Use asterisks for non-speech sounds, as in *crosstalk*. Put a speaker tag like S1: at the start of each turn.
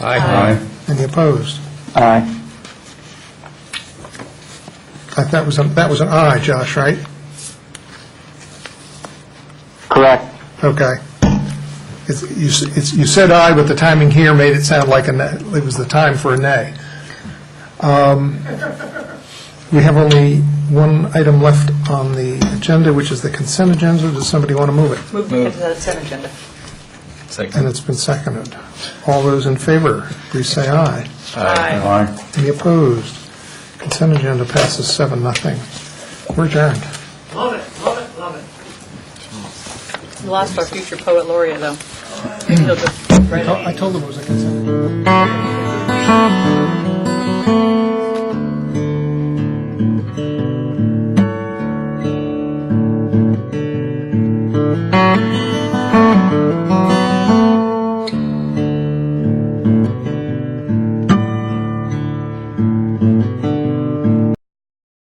S1: Aye.
S2: Any opposed?
S3: Aye.
S2: That that was, a- that was an aye, Josh, right?
S3: Correct.
S2: Okay. It's, you, s- it's, you said aye, but the timing here made it sound like a, na- it was the time for a nay. Um, We have only one item left on the agenda, which is the consent agenda. Does somebody want to move it?
S4: Move to the consent agenda.
S2: And it's been seconded. All those in favor, please say aye.
S4: Aye.
S1: Aye.
S2: Any opposed? Consent agenda passes seven, nothing. We're adjourned.
S4: We Lost our future poet *clears throat* laureate, though. He'll just write it.
S2: I told them it was a consent.
S5: Thank